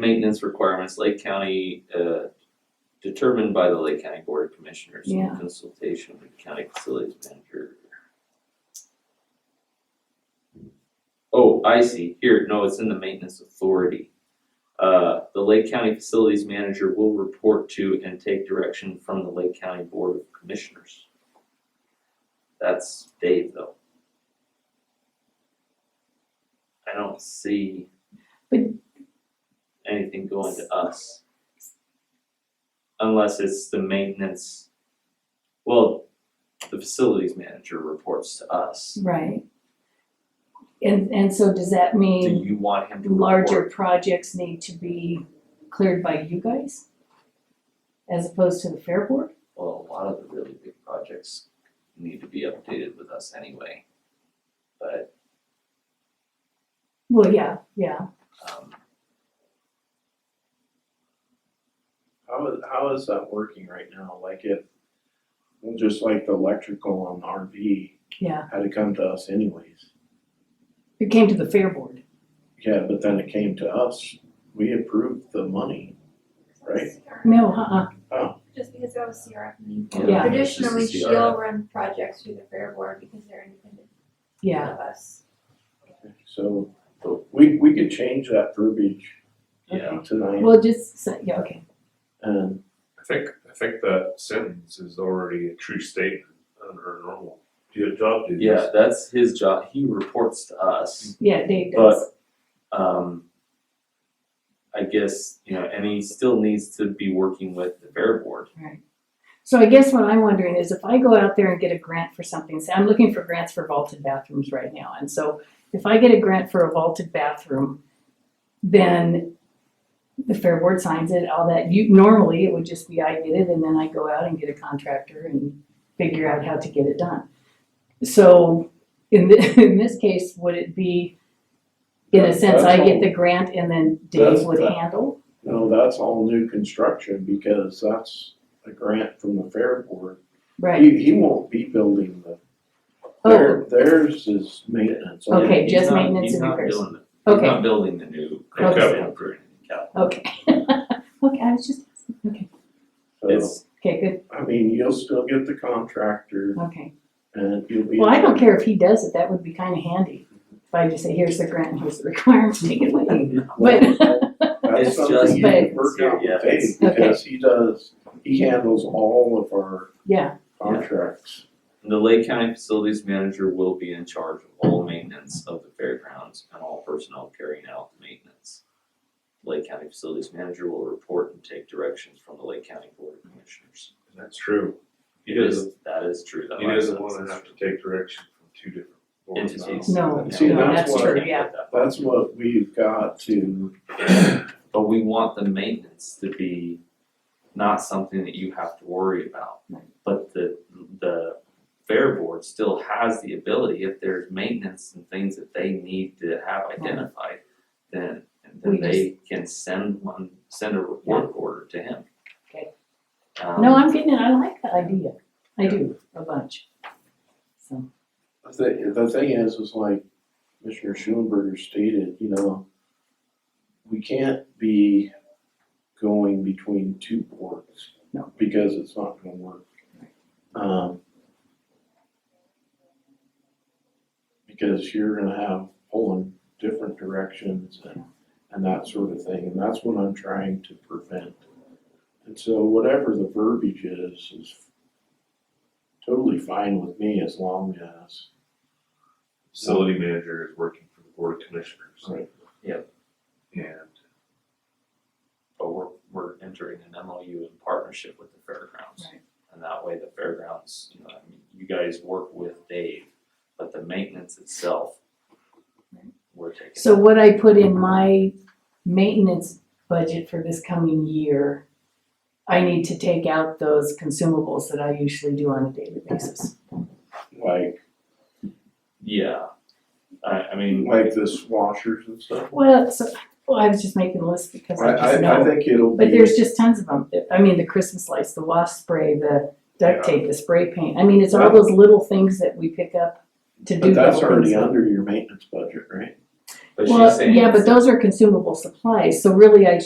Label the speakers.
Speaker 1: maintenance requirements, Lake County, uh, determined by the Lake County Board of Commissioners in
Speaker 2: Yeah.
Speaker 1: consultation with County Facilities Manager. Oh, I see, here, no, it's in the maintenance authority. Uh, the Lake County Facilities Manager will report to and take direction from the Lake County Board of Commissioners. That's Dave though. I don't see.
Speaker 2: But-
Speaker 1: Anything going to us. Unless it's the maintenance, well, the facilities manager reports to us.
Speaker 2: Right. And, and so does that
Speaker 1: Do
Speaker 2: mean
Speaker 1: you want him to report?
Speaker 2: Mm. larger projects need to be cleared by you guys? As opposed to the fair board?
Speaker 1: Well, a lot of the really big projects need to be updated with us anyway. But,
Speaker 2: Well, yeah, yeah,
Speaker 1: um,
Speaker 3: How is, how is that working right now? Like if, well, just like the electrical on the RV
Speaker 2: yeah.
Speaker 3: had to come to us anyways.
Speaker 2: It came to the fair board.
Speaker 3: Yeah, but then it came to us, we approved the money, right?
Speaker 2: No, uh-uh,
Speaker 4: Just because that was CRF means.
Speaker 2: Yeah.
Speaker 1: it's just a
Speaker 4: Traditionally,
Speaker 1: CRF.
Speaker 4: she'll run projects through the fair board because they're independent
Speaker 2: yeah.
Speaker 4: of us.
Speaker 3: So we, we could change that verbiage
Speaker 1: Yeah.
Speaker 3: tonight
Speaker 2: Well, just, so- yeah, okay.
Speaker 3: and
Speaker 5: I think, I think that sentence is already a true statement under normal, do a job duties.
Speaker 1: yeah, that's his job, he reports to us.
Speaker 2: Yeah, Dave does.
Speaker 1: But, um, I guess, you know, and he still needs to be working with the fair board.
Speaker 2: So I guess what I'm wondering is if I go out there and get a grant for something, say I'm looking for grants for vaulted bathrooms right now. And so if I get a grant for a vaulted bathroom, then the fair board signs it, all that. You, normally it would just be I get it and then I go out and get a contractor and figure out how to get it done. So in thi- in this case, would it be, in a
Speaker 3: That-
Speaker 2: sense, I
Speaker 3: that's
Speaker 2: get
Speaker 3: all-
Speaker 2: the grant and then
Speaker 3: That's-
Speaker 2: Dave would
Speaker 3: that-
Speaker 2: handle?
Speaker 3: you know, that's all new construction because that's a grant from the fair board.
Speaker 2: Right,
Speaker 3: He, he won't be building the,
Speaker 2: oh,
Speaker 3: their, theirs is maintenance. only.
Speaker 2: Okay,
Speaker 1: He's
Speaker 2: just
Speaker 1: not-
Speaker 2: maintenance and repairs.
Speaker 1: He's not building, the- he's
Speaker 2: Okay.
Speaker 1: not building the new.
Speaker 5: Okay.
Speaker 1: capital improvement. Yeah.
Speaker 2: okay. Okay, I was just, okay,
Speaker 3: So,
Speaker 1: It's,
Speaker 2: okay, good.
Speaker 3: I mean, you'll still get the contractor.
Speaker 2: Okay,
Speaker 3: And you'll be.
Speaker 2: well, I don't care if he does it, that would be kinda handy, if I just say, here's the grant, here's the requirements, take it away. But,
Speaker 3: That's
Speaker 1: It's
Speaker 3: something
Speaker 2: just-
Speaker 3: you can work out
Speaker 1: Yeah,
Speaker 3: with Dave,
Speaker 2: okay.
Speaker 3: because he does, he handles all of our
Speaker 2: yeah,
Speaker 3: contracts.
Speaker 1: the Lake County Facilities Manager will be in charge of all maintenance of the fairgrounds and all personnel carrying out the maintenance. Lake County Facilities Manager will report and take directions from the Lake County Board of Commissioners.
Speaker 5: That's true. He
Speaker 1: It is,
Speaker 5: doesn't,
Speaker 1: that is true. That
Speaker 5: he
Speaker 1: last
Speaker 5: doesn't
Speaker 1: sentence
Speaker 5: wanna
Speaker 1: is
Speaker 5: have
Speaker 1: true.
Speaker 5: to take direction from two different boards now.
Speaker 1: entities.
Speaker 2: No,
Speaker 1: Yeah.
Speaker 3: See,
Speaker 2: no, that's
Speaker 3: that's
Speaker 2: true,
Speaker 3: why,
Speaker 2: yeah,
Speaker 3: that's what we've got to,
Speaker 1: But we want the maintenance to be not something that you have to worry about.
Speaker 2: Right.
Speaker 1: But the, the fair board still has the ability, if there's maintenance and things that they need to have identified, then,
Speaker 2: We
Speaker 1: then they can send one, send a work order to him.
Speaker 2: Okay.
Speaker 1: Um,
Speaker 2: no, I'm getting it, I like the idea, I do, a bunch. So,
Speaker 3: the, thi- the thing is, is like Mr. Schulenberger stated, you know, we can't be going between two boards.
Speaker 2: No.
Speaker 3: Because it's not gonna work. Um. Because you're gonna have pulling different directions and, and that sort of thing, and that's what I'm trying to prevent. And so whatever the verbiage is, is totally fine with me as long as,
Speaker 5: Facility manager is working for the board of commissioners.
Speaker 3: Right.
Speaker 1: Yep.
Speaker 5: And
Speaker 1: But we're, we're entering an MOU in partnership with the fairgrounds.
Speaker 2: Right.
Speaker 1: And that way the fairgrounds, you know, I mean, you guys work with Dave, but the maintenance itself,
Speaker 2: Right.
Speaker 1: we're taking.
Speaker 2: so what I put in my maintenance budget for this coming year, I need to take out those consumables that I usually do on a daily basis.
Speaker 3: like,
Speaker 1: Yeah, I, I mean,
Speaker 3: like the washers and stuff.
Speaker 2: Well, so, well, I was just making a list because
Speaker 3: I,
Speaker 2: I just know.
Speaker 3: I, I think it'll
Speaker 2: But
Speaker 3: be,
Speaker 2: there's just tons of them. I mean, the Christmas lights, the wasp spray, the duct tape, the spray paint. I mean, it's all those little things that we pick up to do.
Speaker 3: but that's
Speaker 2: little things.
Speaker 3: already under your maintenance budget, right?
Speaker 1: But she's
Speaker 2: Well,
Speaker 1: saying.
Speaker 2: yeah, but those are consumable supplies, so really I,